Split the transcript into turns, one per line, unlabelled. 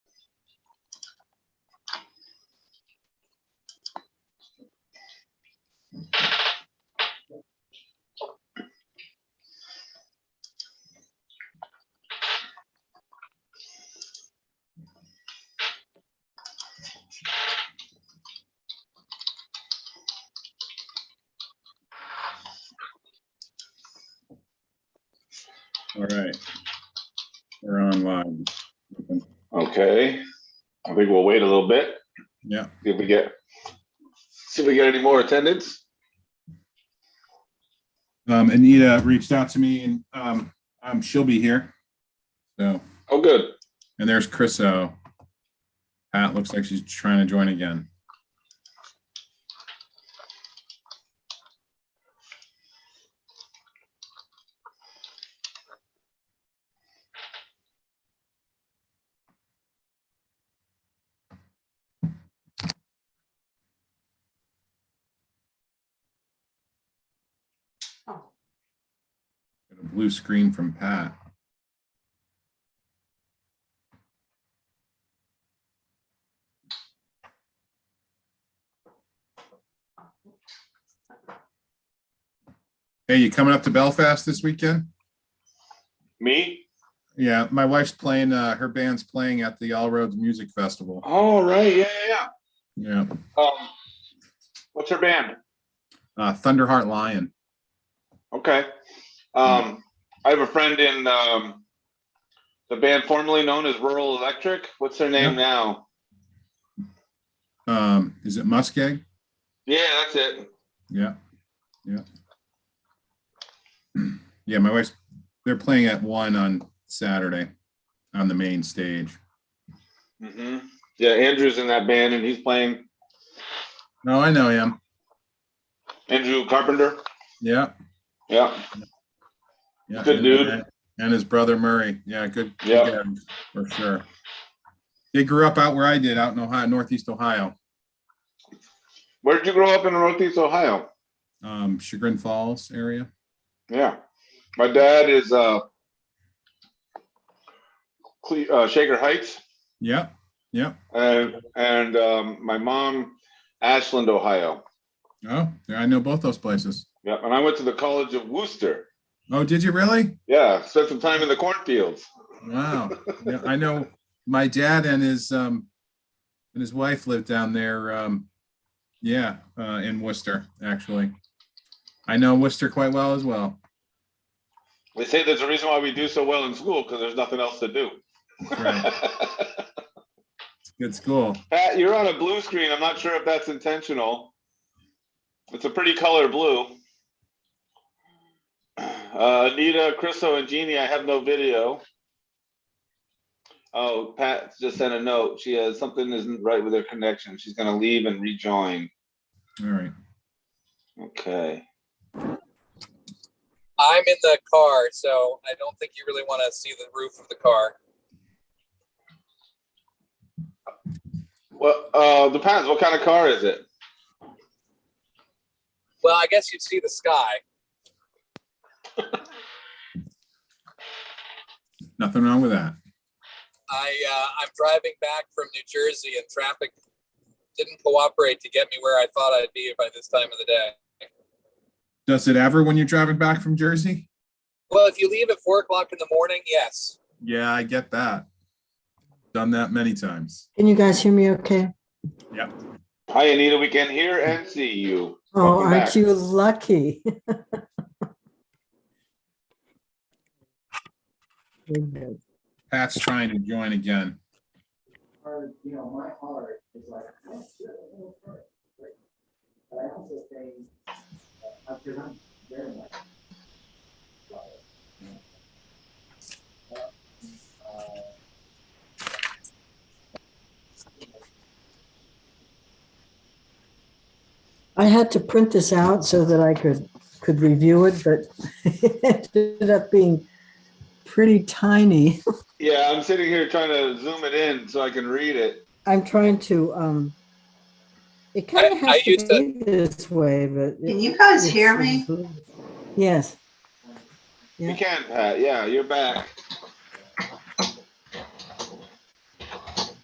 All right. We're online.
Okay, I think we'll wait a little bit,
Yeah,
see if we get, see if we get any more attendance.
um, Anita reached out to me and, um, um, she'll be here. So,
Oh, good.
and there's Chris O. Pat looks like she's trying to join again. Got a blue screen from Pat. Hey, you coming up to Belfast this weekend?
Me?
Yeah, my wife's playing, uh, her band's playing at the All Roads Music Festival.
All right, yeah, yeah,
Yeah,
yeah. Um, what's her band?
uh, Thunderheart Lion.
Okay. Um, I have a friend in, um, the band formerly known as Rural Electric. What's their name now?
Um, is it Muskeg?
Yeah, that's it.
Yeah, yeah. Yeah, my wife's, they're playing at one on Saturday on the main stage.
hmm Yeah, Andrew's in that band and he's playing
No, Oh, I know him.
Andrew Carpenter.
Yeah.
Yeah.
yeah,
Good
and-
dude.
And his brother Murray. Yeah, good. good guy,
Yeah.
For sure. They grew up out where I did, out in Ohio, Northeast Ohio,
Where did you grow up in Northeast Ohio?
um, Chagrin Falls area.
Yeah. My dad is uh, Cle- uh Shaker Heights
Yeah,
and and um, my mom Ashland, Ohio.
Oh, yeah, I know both those places.
Yeah, and I went to the College of Worcester.
Oh, did you really?
Yeah, spent some time in the cornfields.
Wow. Yeah, I know my dad and his um and his wife lived down there. Um yeah, uh in Worcester, actually. I know Worcester quite well as well.
They say there's a reason why we do so well in school because there's nothing else to do.
That's right. It's a good school.
Pat, you're on a blue screen. I'm not sure if that's intentional. It's a pretty color blue. Uh, Anita, Chriso, and Jeannie, I have no video. Oh, Pat just sent a note. She has something isn't right with her connection. She's gonna leave and rejoin.
All right.
Okay.
I'm in the car, so I don't think you really want to see the roof of the car.
Well, uh, depends. What kind of car is it?
Well, I guess you'd see the sky.
Nothing wrong with that.
I uh, I'm driving back from New Jersey, and traffic didn't cooperate to get me where I thought I'd be by this time of the day.
Does it ever when you're driving back from Jersey?
Well, if you leave at four o'clock in the morning, yes.
Yeah, I get that. Done that many times.
Can you guys hear me okay?
Hi, Anita. We can hear and see you.
Oh,
Welcome
aren't
back.
you lucky?
Pat's trying to join again.
heart, you know, my heart is like, I don't feel a little hurt. But but I also think, uh, because I'm very much.
I had to print this out so that I could, could review it, but it ended up being pretty tiny.
Yeah, I'm sitting here trying to zoom it in so I can read it.
I'm trying to, um, it kind
I-
of
I
has to
used to-
be this way, but.
Can
it-
you guys hear
it's-
me?
Yes.
You
Yeah.
can, Pat. Yeah, you're back.